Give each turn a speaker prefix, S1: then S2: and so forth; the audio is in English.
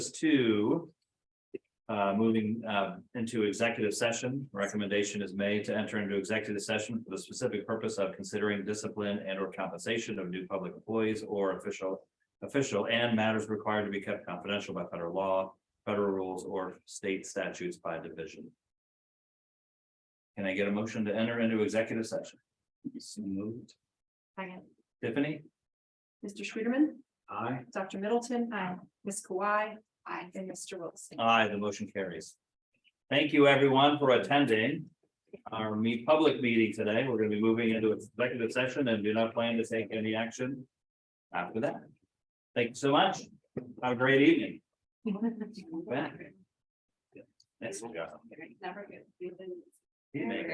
S1: to uh, moving uh, into executive session, recommendation is made to enter into executive session for the specific purpose of considering discipline and or compensation of new public employees or official official and matters required to be kept confidential by federal law, federal rules, or state statutes by division. Can I get a motion to enter into executive session? So moved.
S2: Second.
S1: Tiffany?
S2: Mr. Schwerman,
S1: Aye.
S2: Dr. Middleton. Aye. Ms. Kawhi. Aye. And Mr. Wilson.
S1: Aye, the motion carries. Thank you, everyone, for attending our meet public meeting today. We're gonna be moving into executive session and do not plan to take any action after that. Thank you so much. Have a great evening. Back. Thanks, Scott.
S2: Never good.
S1: Evening.